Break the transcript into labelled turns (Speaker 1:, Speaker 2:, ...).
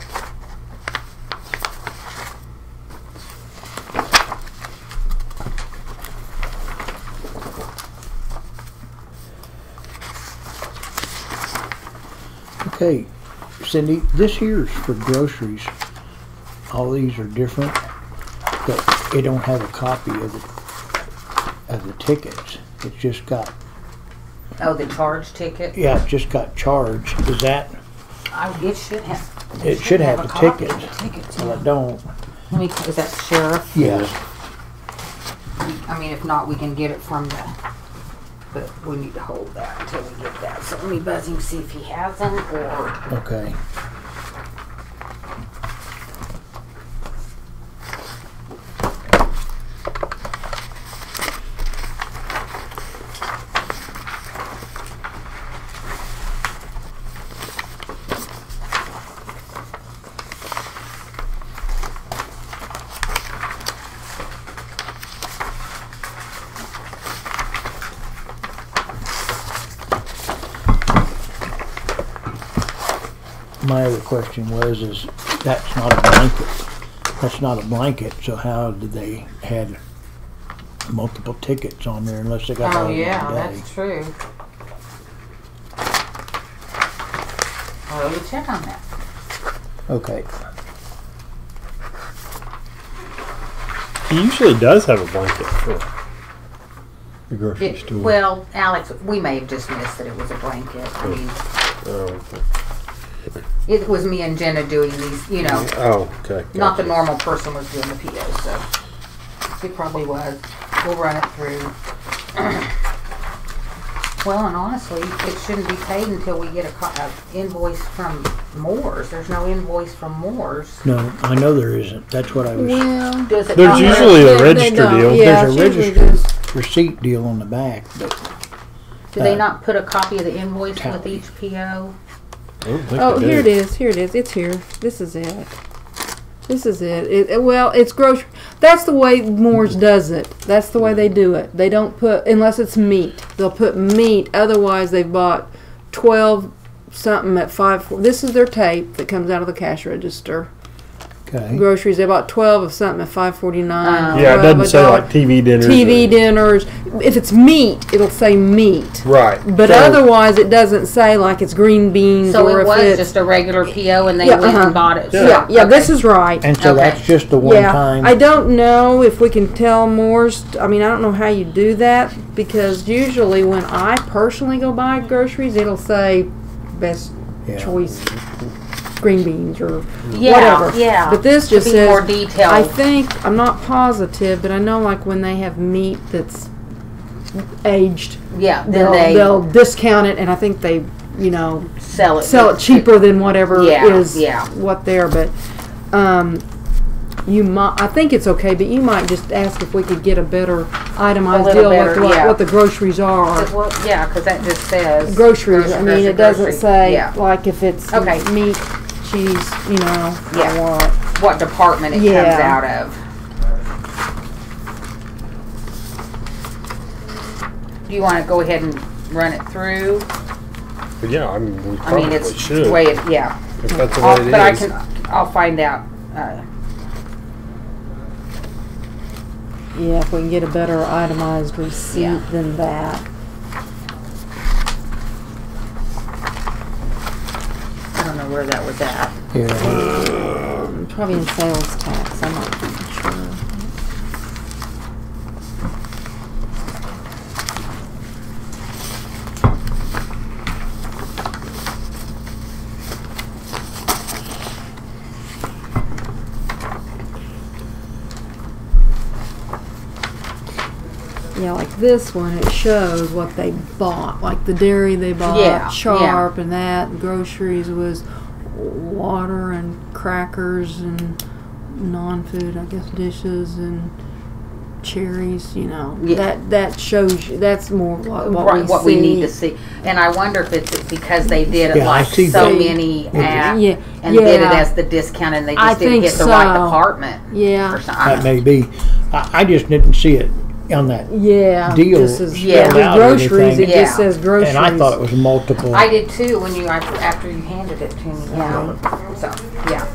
Speaker 1: Okay, Cindy, this here's for groceries. All these are different, but they don't have a copy of the, of the tickets. It's just got,
Speaker 2: Oh, the charge ticket?
Speaker 1: yeah, it just got charged. Is that,
Speaker 2: I, it should have.
Speaker 1: It should have
Speaker 2: a
Speaker 1: the
Speaker 2: copy of
Speaker 1: tickets.
Speaker 2: the Tickets.
Speaker 1: well, it don't.
Speaker 2: Let me, is that sheriff?
Speaker 1: Yeah,
Speaker 2: I mean, if not, we can get it from the, but we need to hold that until we get that. So let me buzz him, see if he has them or.
Speaker 1: okay. My other question was, is that's not a blanket. That's not a blanket, so how did they had multiple tickets on there unless they got all
Speaker 2: Oh,
Speaker 1: in one
Speaker 2: yeah,
Speaker 1: day?
Speaker 2: that's true. I'll let you check on that.
Speaker 1: Okay,
Speaker 3: He usually does have a blanket for the grocery
Speaker 2: It-
Speaker 3: store.
Speaker 2: well, Alex, we may have just missed that it was a blanket. I mean,
Speaker 3: oh, okay.
Speaker 2: it was me and Jenna doing these, you know,
Speaker 3: Oh, okay.
Speaker 2: not the
Speaker 3: gotcha.
Speaker 2: normal person was doing the PO, so it probably was. We'll run it through. Well, and honestly, it shouldn't be paid until we get a co- a invoice from Moore's. There's no invoice from Moore's.
Speaker 1: no, I know there isn't. That's what I was,
Speaker 4: Well,
Speaker 2: Does it?
Speaker 3: There's
Speaker 2: not-
Speaker 3: usually a
Speaker 4: they
Speaker 3: register
Speaker 4: don't.
Speaker 3: deal.
Speaker 4: Yeah,
Speaker 1: There's a
Speaker 4: it's usually
Speaker 1: register.
Speaker 4: just-
Speaker 1: receipt deal on the back, but
Speaker 2: Do they not put a copy of the invoice with
Speaker 1: Tally.
Speaker 2: each PO?
Speaker 3: I don't think
Speaker 4: Oh,
Speaker 3: they
Speaker 4: here it
Speaker 3: do.
Speaker 4: is. Here it is. It's here. This is it. This is it. it. it- Well, it's grocery. That's the way Moore's does it. That's the way they do it. They don't put unless it's meat. They'll put meat. Otherwise, they've bought twelve something at five. This is their tape that comes out of the cash register.
Speaker 1: okay.
Speaker 4: Groceries. They bought twelve of something at five forty nine.
Speaker 3: Yeah, it doesn't say like TV dinners.
Speaker 4: TV
Speaker 3: or-
Speaker 4: dinners. If it's meat, it'll say meat.
Speaker 3: Right.
Speaker 4: But
Speaker 3: So,
Speaker 4: otherwise, it doesn't say like it's green beans
Speaker 2: So
Speaker 4: or
Speaker 2: it
Speaker 4: if
Speaker 2: was
Speaker 4: it's
Speaker 2: just a regular PO and they
Speaker 4: Yeah,
Speaker 2: went and
Speaker 4: uh-huh.
Speaker 2: bought it.
Speaker 4: yeah, yeah, this
Speaker 2: Okay.
Speaker 4: is right.
Speaker 1: And so
Speaker 2: Okay.
Speaker 1: that's just the one
Speaker 4: Yeah,
Speaker 1: time.
Speaker 4: I don't know if we can tell Moore's. I mean, I don't know how you do that because usually when I personally go buy groceries, it'll say best
Speaker 1: Yeah.
Speaker 4: choice green beans or
Speaker 2: Yeah,
Speaker 4: whatever.
Speaker 2: yeah.
Speaker 4: But this
Speaker 2: To
Speaker 4: just
Speaker 2: be
Speaker 4: says
Speaker 2: more detailed.
Speaker 4: I think I'm not positive, but I know like when they have meat that's aged,
Speaker 2: Yeah, then
Speaker 4: they'll,
Speaker 2: they
Speaker 4: they'll discount it, and I think they, you know,
Speaker 2: sell it.
Speaker 4: sell it cheaper than whatever
Speaker 2: Yeah,
Speaker 4: is
Speaker 2: yeah.
Speaker 4: what there. But um, you might, I think it's okay. But you might just ask if we could get a better itemized
Speaker 2: little
Speaker 4: deal
Speaker 2: better,
Speaker 4: with what,
Speaker 2: yeah.
Speaker 4: what the groceries are.
Speaker 2: Well, yeah, because that just says
Speaker 4: Groceries. I
Speaker 2: grocery,
Speaker 4: mean,
Speaker 2: grocery,
Speaker 4: it doesn't
Speaker 2: grocery.
Speaker 4: say
Speaker 2: yeah.
Speaker 4: like if it's
Speaker 2: Okay.
Speaker 4: meat, cheese, you know, or
Speaker 2: Yeah.
Speaker 4: what.
Speaker 2: what department it
Speaker 4: Yeah.
Speaker 2: comes out of. Do you want to go ahead and run it through?
Speaker 3: Yeah, I mean, we
Speaker 2: I
Speaker 3: probably
Speaker 2: mean, it's
Speaker 3: should.
Speaker 2: the way it, yeah.
Speaker 3: if that's the way
Speaker 2: I'll,
Speaker 3: it
Speaker 2: but I
Speaker 3: is.
Speaker 2: can, I'll find out. Uh,
Speaker 4: Yeah, if we can get a better itemized receipt
Speaker 2: Yeah.
Speaker 4: than that.
Speaker 2: I don't know where that was at.
Speaker 1: Yeah,
Speaker 4: Um, Probably in sales tax. I'm not sure. Yeah, like this one, it shows what they bought, like the dairy they bought,
Speaker 2: Yeah, yeah.
Speaker 4: Sharp, and that groceries was water and crackers and non-food, I guess, dishes and cherries. You know,
Speaker 2: Yeah.
Speaker 4: that that shows you. That's more what, what
Speaker 2: right,
Speaker 4: we
Speaker 2: what
Speaker 4: see.
Speaker 2: we need to see. And I wonder if it's because they did it
Speaker 1: Yeah, I
Speaker 2: like
Speaker 1: see
Speaker 2: so
Speaker 4: that.
Speaker 2: many at,
Speaker 4: Yeah,
Speaker 2: and did it
Speaker 4: yeah.
Speaker 2: as the discount, and they just
Speaker 4: I
Speaker 2: didn't
Speaker 4: think
Speaker 2: hit the right
Speaker 4: so.
Speaker 2: department.
Speaker 4: Yeah,
Speaker 2: Or something.
Speaker 1: that
Speaker 2: I
Speaker 1: may be. I, I just didn't see it on that.
Speaker 4: yeah.
Speaker 1: Deal
Speaker 4: Just as,
Speaker 2: Yeah.
Speaker 4: with
Speaker 1: out or
Speaker 4: groceries. It
Speaker 1: anything.
Speaker 4: just
Speaker 2: Yeah.
Speaker 4: says groceries.
Speaker 1: And I thought it was multiple.
Speaker 2: I did too when you after you handed it to me. Yeah. So yeah.